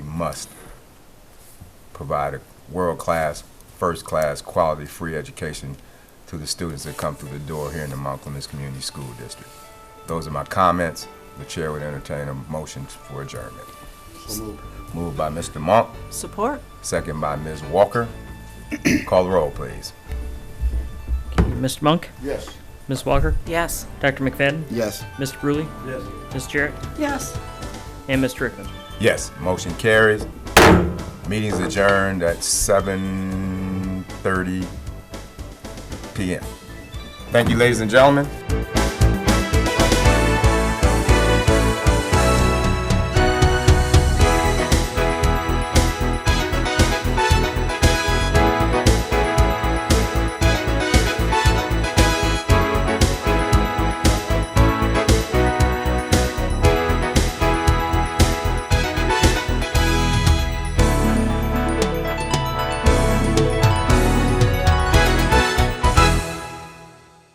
must provide a world-class, first-class, quality, free education to the students that come through the door here in the Mount Clemens Community School District. Those are my comments. The chair would entertain a motion for adjournment. Moved by Mr. Monk, Support. second by Ms. Walker. Call the roll, please. Mr. Monk, Yes. Ms. Walker, Yes. Dr. McFadden, Yes. Mr. Brewley, Yes. Ms. Jarrett, Yes. and Mr. Rickman. Yes, motion carries. Meeting's adjourned at 7:30 PM. Thank you, ladies and gentlemen.